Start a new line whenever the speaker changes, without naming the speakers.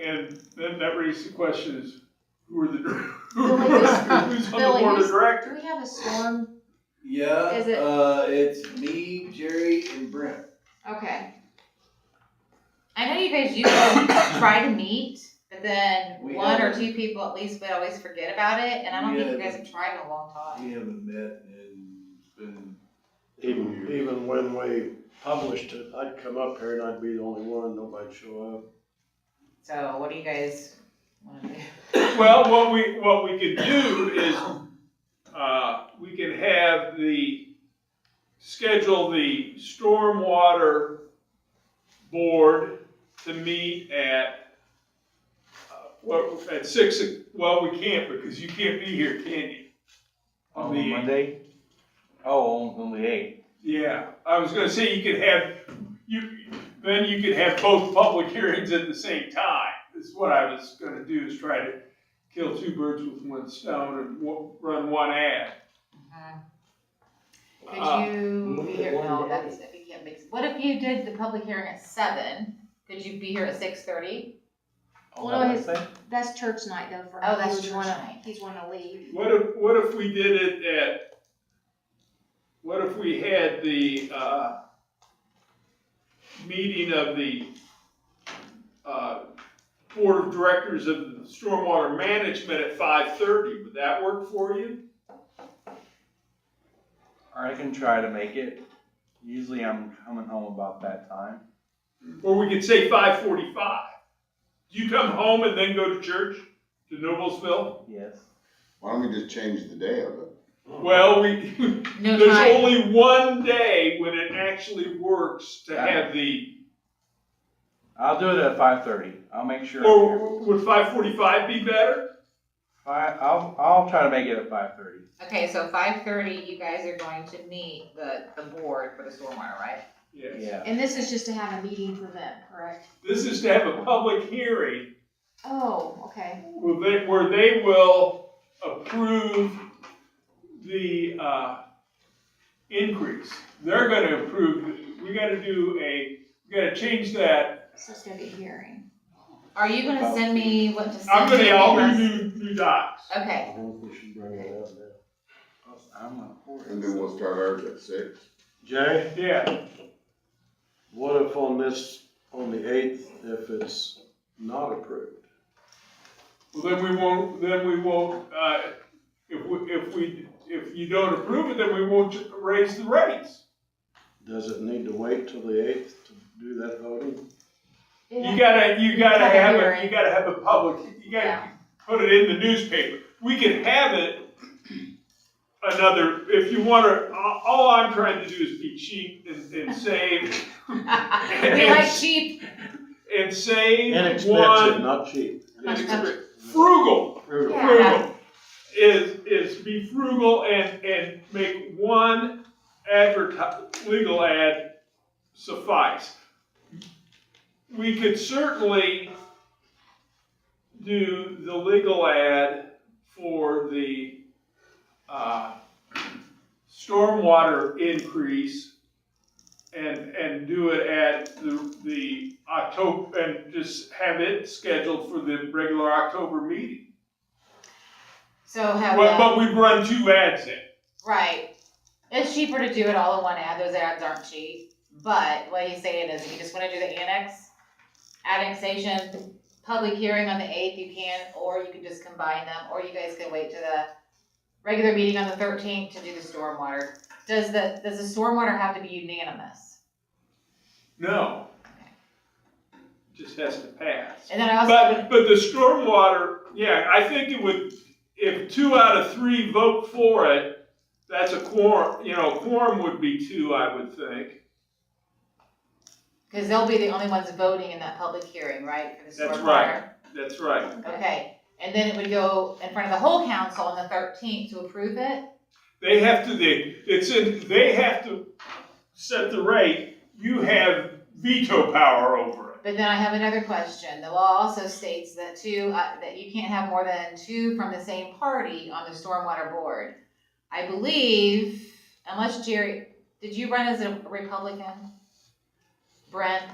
And then that raises the question is, who are the, dir-
Billy, who's-
who's on the
Billy,
board of
who's-
directors?
Do we have a storm?
Yeah.
Is it-
Uh, it's me, Jerry, and Brent.
Okay. I know you guys usually try to meet, but then
We
one or
haven't.
two people at least would always forget about it, and I don't
We
think you guys
haven't.
have tried in a long time.
We haven't met and it's been.
Even, even when we published it, I'd come up here and I'd be the only one, nobody'd show up.
So what do you guys want to do?
Well, what we, what we could do is, uh, we can have the, schedule the stormwater board to meet at, uh, what, at six, o- well, we can't because you can't be here, can you? On the eighth.
Monday? Oh, on- on the eighth.
Yeah, I was gonna say you could have, you, then you could have both public hearings at the same time. Is what I was gonna do, is try to kill two birds with one stone and wa- run one ad.
Mhm.
Uh,
Could you be
look at
here,
one
no,
day.
that's, if you can't make, what if you did the public hearing at seven? Could you be here at six thirty?
On
Well,
that
no, his-
Wednesday?
That's church night though for him.
Oh, that's
He would
church
wanna-
night.
He'd wanna leave.
What if, what if we did it at, what if we had the, uh, meeting of the, uh, board of directors of stormwater management at five thirty? Would that work for you?
Or I can try to make it. Usually I'm coming home about that time.
Or we could say five forty-five. Do you come home and then go to church to Noblesville?
Yes.
Why don't we just change the day of it?
Well, we,
No
there's
time.
only one day when it actually works to have the,
I'll do it at five thirty. I'll make sure. I'm here.
or would five forty-five be better?
Fi I'll, I'll try to make it at five thirty.
Okay, so five thirty, you guys are going to meet the, the board for the stormwater, right?
Yes.
Yeah.
And this is just to have a meeting for them, correct?
This is to have a public hearing
Oh, okay.
where they, where they will approve the, uh, increase. They're gonna approve, we gotta do a, we gotta change that
So it's gonna be a hearing.
Are you gonna send me what to send?
I'm gonna,
you?
I'll do new, new docs.
Okay,
I don't think we should bring it up now.
I'm gonna pour
And then we'll
it.
start ours at six.
Jay,
Yeah,
what if on this, on the eighth, if it's not approved?
well, then we won't, then we won't, uh, if we, if we, if you don't approve it, then we won't ju- raise the rates.
Does it need to wait till the eighth to do that voting?
You gotta, you gotta
Have a
have it,
hearing.
you gotta have a public, you gotta
Yeah.
put it in the newspaper. We can have it another, if you wanna, all, all I'm trying to do is be cheap and, and save,
we like sheep.
and save
Inexpensive,
one.
not cheap.
inexpensive. Frugal,
Frugal.
Yeah.
frugal is is be frugal and and make one adverti- legal ad suffice. We could certainly do the legal ad for the uh, stormwater increase and and do it at the the October and just have it scheduled for the regular October meeting.
So have
Well,
the,
but we run two ads in.
right. It's cheaper to do it all in one ad. Those ads aren't cheap. But what he's saying is, if you just want to do the annex, annexation, public hearing on the eighth, you can, or you can just combine them, or you guys can wait to the regular meeting on the thirteenth to do the stormwater. Does the does the stormwater have to be unanimous?
No. Just has to pass.
And then I also
But, but the stormwater, yeah, I think it would, if two out of three vote for it, that's a quorum, you know, quorum would be two, I would think.
because they'll be the only ones voting in that public hearing, right? For the
That's
stormwater?
right. That's right.
Okay, and then it would go in front of the whole council on the thirteenth to approve it?
They have to, they, it's in, they have to set the rate. You have veto power over it.
But then I have another question. The law also states that two, uh, that you can't have more than two from the same party on the stormwater board. I believe, unless Jerry, did you run as a Republican? Brent?